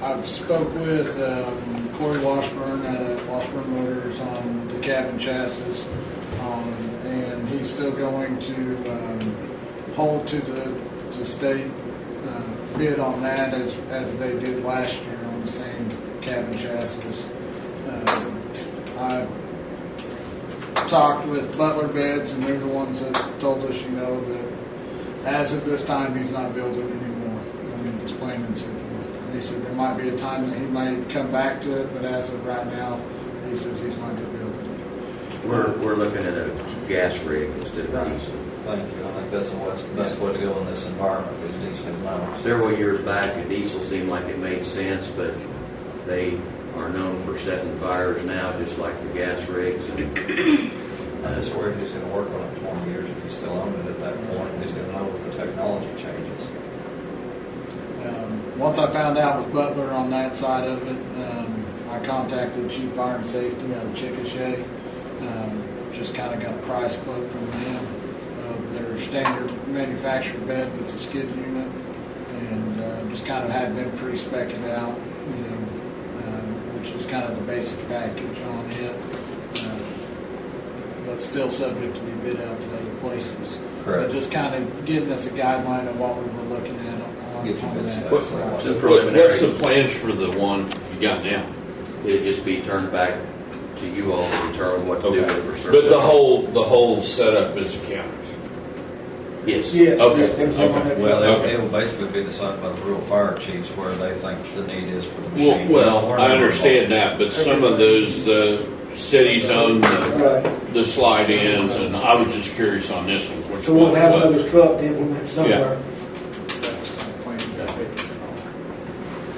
Uh, spoke with um, Corey Washburn at uh, Washburn Motors on the cab and chassis, um, and he's still going to um, hold to the, the state uh, bid on that as, as they did last year on the same cab and chassis. Um, I talked with Butler Beds, and they're the ones that told us, you know, that as of this time, he's not building anymore. I mean, explained and said, and he said there might be a time that he might come back to it, but as of right now, he says he's not going to build it. We're, we're looking at a gas rig instead of diesel. Thank you. I think that's the best, best way to go in this environment, is diesel miles. Several years back, a diesel seemed like it made sense, but they are known for setting fires now, just like the gas rigs. And I just worried who's gonna work on it twenty years if he still owned it at that point, who's gonna know if the technology changes. Um, once I found out with Butler on that side of it, um, I contacted Chief Fire and Safety out of Chickasha. Um, just kind of got a price quote from them of their standard manufactured bed with the skid unit, and uh, just kind of had them pre-spec it out, you know, um, which was kind of the basic package on it. Um, But still subject to be bid out to other places. Correct. But just kind of giving us a guideline of what we were looking at on Get your bid specs. Right. What- It's a What- preliminary, What's the plans for the one you got now? it'd just be turned back to you all to determine what to do with it for certain. But the whole, the whole setup is cameras. Yes. Okay, okay. Well, it'll- it Okay. will basically be decided by the rural fire chiefs where they think the need is for the Well, machine. well, I understand that, but some of those, the cities own the, Right, the slide ins, and I was just curious on this one, which so we'll one have it was. another truck to implement somewhere.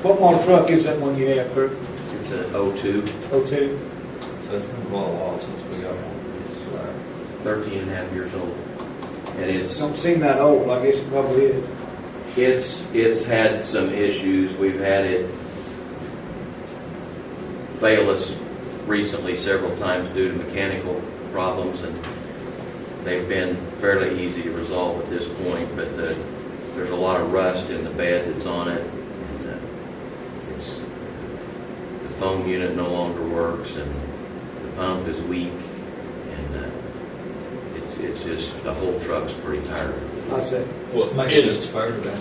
What model truck is that one you have, Kurt? It's an O2, O two? So it's been quite a while since we got one. 13 and a half years old. And It it's, don't seem that old, I guess it probably is. it's, it's had some issues. We've had it fail us recently several times due to mechanical problems, and they've been fairly easy to resolve at this point, but uh, there's a lot of rust in the bed that's on it. and uh, it's- The foam unit no longer works, and the pump is weak, and uh, it's- it's just, the whole truck's pretty tired. I said, So Well, Maybe Is, it's better than.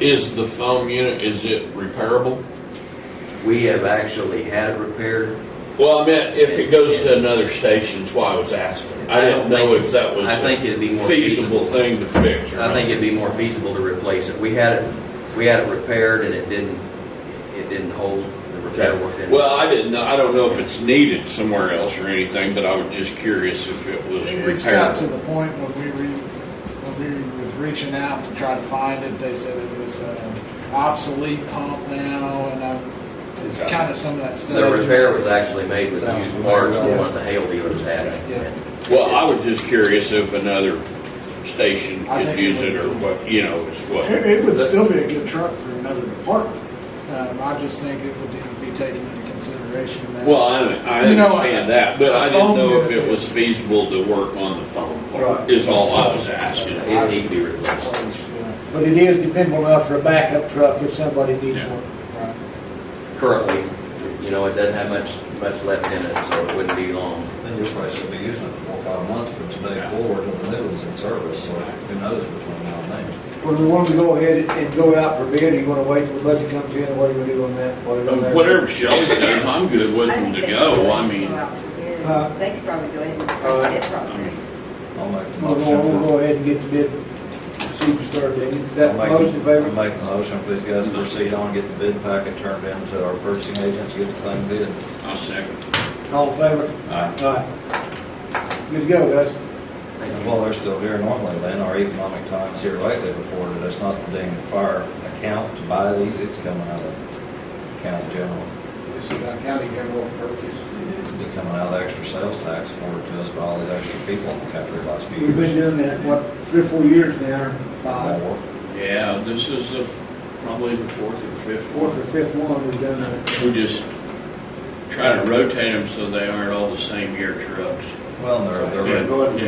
is the foam unit, is it repairable? We have actually had it repaired. Well, I meant if it goes to another station, that's why I was asking. I didn't know think if that was I think a it'd be more feasible thing to fix. or I think not. it'd be more feasible to replace it. We had it, we had it repaired and it didn't, it didn't hold, the repair work didn't. Well, I didn't know, I don't know if it's needed somewhere else or anything, but I was just curious if it was It's got to repairable. the point when we re, when we was reaching out to try to find it, they said it was uh, obsolete pump now, and uh, it's Okay. kind of some of that stuff. The repair was actually made with Sounds used parts that familiar. one of the hail dealers had. Yeah. Well, I was just curious if another station I could think use it it or would. what, you know, it's what. It, it would still be a good truck for another department. Um, I just think it would need to be taken into consideration. that- Well, I, I You know, understand that, but a I didn't phone know if unit- it was feasible to work on the phone part, Right. is all I was asking. It need to be replaced. Yeah, but it is dependable enough for a backup truck if somebody needs Yeah. one. right. Currently, you know, it doesn't have much, much left in it, so it wouldn't be long. Then you probably should be using it for four or five months from today Yeah. forward when the new one's in service, so who knows between now and then. Well, we want to go ahead and go out for bid, or you want to wait till the budget comes in, what are you going to do on that? What are you gonna do? Uh, Whatever Shelley says, I'm good with I them think to they uh, could go, I probably mean, go out for bid. Huh? They could probably go ahead and All start the right. bid process. I'll make a We'll go, we'll motion. go ahead and get the bid, see if we start it. Is for- that I'll make- motion in I'll favor? Make a motion for these guys to proceed on, get the bid packet turned in to our purchasing agents, get the thing bid. I'll second. All in favor? Aye. Aye. Good to go, guys. And while they're still here normally, then our economic times here lately before, that it's not the dang fire account to buy these, it's coming out of county general. This is our county general purpose. They're coming out of extra sales tax afforded to us by all these extra people in the country the last few We've been years. doing that, what, three or four years now, or five? More. Yeah, this is the, f- probably the fourth or fifth. fourth or fifth one we've done that. We just try to rotate them so they aren't all the same year trucks. Well, and they're, they're. Yeah, yeah.